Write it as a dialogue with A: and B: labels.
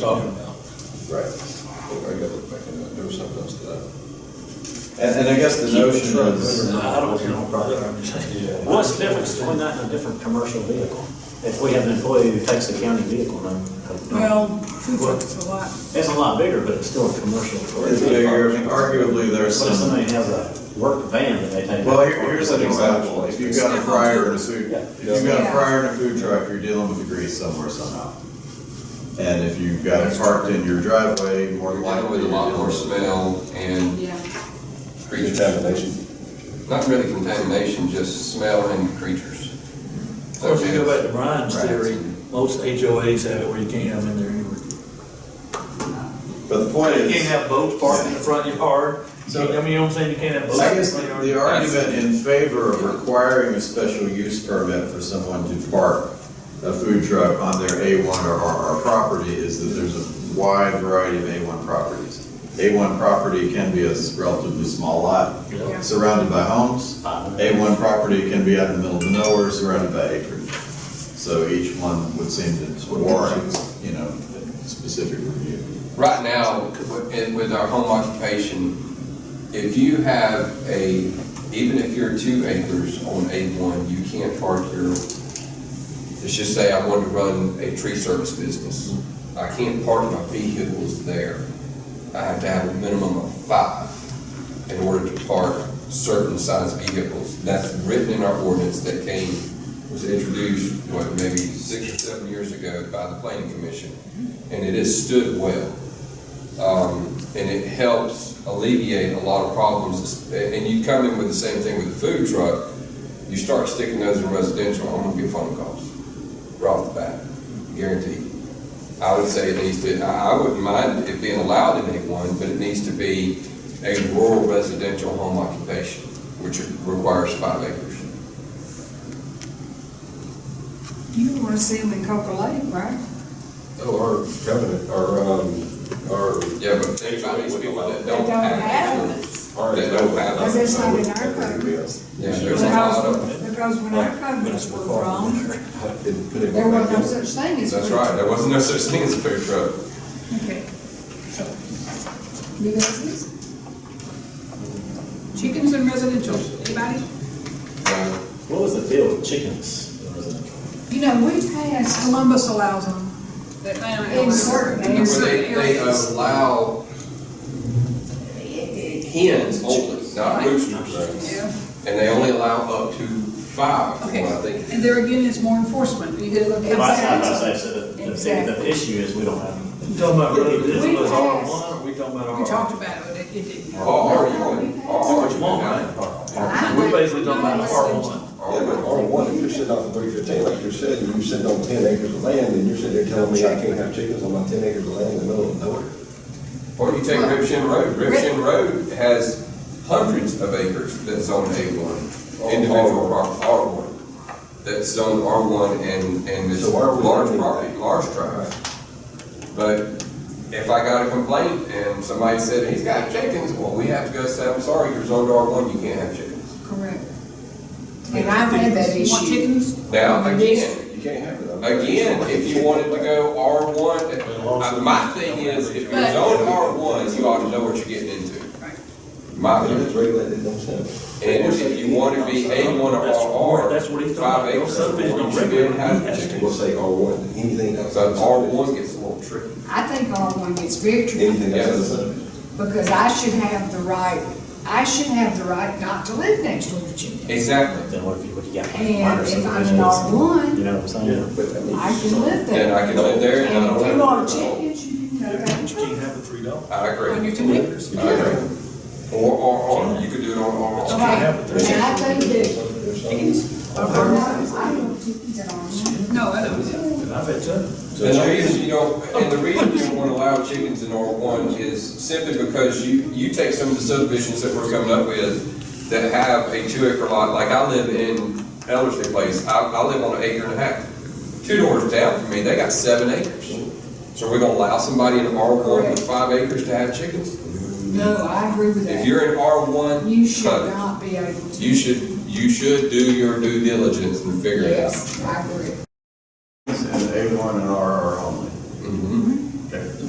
A: talking about.
B: Right. I gotta look back into it, there was something else to that.
C: And, and I guess the notion
B: truck
C: is,
A: I don't know, brother, I'm just saying.
D: What's the difference between that and a different commercial vehicle? If we have an employee who takes the county vehicle, then. uh,
E: Well, food trucks a lot.
D: It's a lot bigger, but it's still a commercial.
C: it's bigger, I mean, arguably there's
D: What if
C: some.
D: somebody has a work van that they take?
C: Well, here, here's an example, if you've got a fryer and a food, if you've got a fryer and a food truck, you're dealing with the grease somewhere somehow. And if you've got it parked in your driveway, more
F: We're
C: than
F: dealing
C: likely.
F: with a
C: you're
F: lot more
C: dealing with-
F: smell and
G: Yeah.
F: creatures. Not really contamination, just smell and creatures.
A: Of course, you go back to Brian's theory, most HOAs have it where you can't have them in there anyway.
C: But the point
A: You
C: is.
A: can't have boats parked in the front of your yard, You
C: So-
A: can't- I mean, you know what I'm saying, you can't have boats.
C: I guess
A: in front of
C: the
A: your yard.
C: argument in favor of requiring a special use permit for someone to park a food truck on their A1 or RR property is that there's a wide variety of A1 properties. A1 property can be a relatively small lot
A: Yeah.
C: surrounded by homes.
D: Five.
C: A1 property can be out in the middle of nowhere surrounded by acreage. So each one would seem to warrant, you know, a specific review.
F: Right now, with with our home occupation, if you have a, even if you're two acres on A1, you can't park your, let's just say I wanted to run a tree service business. I can't park my vehicles there. I have to have a minimum of five in order to park certain size vehicles. That's written in our ordinance that came, was introduced, what, maybe six or seven years ago by the planning commission. And it has stood well um, and it helps alleviate a lot of problems. And you come in with the same thing with the food truck, you start sticking those in residential, I'm gonna get phone calls right off the bat, guaranteed. I would say it needs to, I I wouldn't mind it being allowed in A1, but it needs to be a rural residential home occupation, which requires five acres.
E: You wanna see them in Coca Lake, right?
B: Oh, our covenant, our, um, our.
F: Yeah, but think about these people that don't
E: They don't
F: have.
E: have
F: insurance.
B: Our-
F: They don't have.
E: Cause it's not in our
B: Everybody
E: code.
B: else.
F: Yeah, there's a lot of.
E: Because, because when our covenants were drawn,
B: Didn't put it
E: there was
B: back
E: no
B: in.
E: such thing as.
F: That's right, there wasn't no such thing as a food truck.
E: Okay. You guys this? Chickens and residential, anybody?
F: No.
D: What was the deal with chickens in residential?
E: You know, we passed, Columbus allows them in certain,
F: Where
E: in
F: they,
E: certain
F: they
E: areas.
F: allow hens only, not roosters.
G: Yeah.
F: And they only allow up to five, from what I
G: Okay,
F: think.
G: and there again is more enforcement, you gotta look
D: Well, that's not
G: at
E: Exactly.
D: what I say, so the, the, thing- the issue is we don't have.
A: You talking about residential,
E: We
A: is R
E: passed.
A: one, or we talking about R?
G: We talked about it, it didn't.
F: Or are you, or are
A: Which
F: you
A: one,
F: now?
A: right? We basically talking about R one.
B: Yeah, but R one, if you're sitting off of three fifteen, like you're sitting, you're sitting on ten acres of land, and you're sitting there telling me I can't have chickens on my ten acres of land in the middle of nowhere.
F: Or you take Ripshin Road, Ripshin Road has hundreds of acres that's zoned A one, individual prop- R one. That's zoned R one and, and it's
B: So why are we
F: large
B: limiting
F: property,
B: that?
F: large tracts. But if I got a complaint and somebody said, he's got chickens, well, we have to go say, I'm sorry, you're zoned R one, you can't have chickens.
E: Correct. And I've had that
G: You want
E: issue.
G: chickens?
F: Now, again,
B: You can't have it. I'm-
F: again, if you wanted to go R one, uh,
A: also-
F: my thing is, if you're
G: But-
F: zoned R one, you ought to know what you're getting into.
G: Right.
F: My
B: If
F: opinion.
B: it's regulated, don't sell it.
F: And if you want to be A one
A: That's
F: or
A: what-
F: R,
A: that's what he's talking about.
F: five acres,
A: Subdivision
F: you
A: don't
F: should be able to have
A: regulate
B: We'll
F: chickens.
B: say R one, anything else.
F: So R one gets a little tricky.
E: I think R one gets very tricky
B: Anything else.
F: Yes.
E: because I should have the right, I should have the right not to live next door to chickens.
F: Exactly.
D: Then what if you, what do you got?
E: And
D: minor
E: if I'm an
D: subdivisions?
E: R1,
D: You know what I'm saying?
B: But I mean,
E: I can
F: Then
E: live there.
F: I can live there and I
E: And
F: don't.
E: if you
F: have
E: want
F: to
E: chickens, you can go back
A: You
E: and
A: can't have a three dollar.
F: I
G: On your
F: agree.
G: two acres?
B: you
F: I
B: can't have
F: agree.
B: it.
F: Or R one, you could do it on R one.
E: Right,
A: have it.
E: and I think that
B: There's some-
E: R1, I don't chickens at R1.
G: No, I don't.
A: I bet you.
F: And the reason you don't, and the reason you don't want to allow chickens in R one is simply because you, you take some of the subdivisions that we're coming up with that have a two acre lot, like I live in Ellerslie Place, I, I live on an acre and a half. Two doors down from me, they got seven acres. So we're gonna allow somebody in R one with five acres to have chickens?
E: No, I agree with
F: If
E: that.
F: you're in R one,
E: You should not be able to.
F: You should, you should do your due diligence and figure it out.
E: Yes, I agree.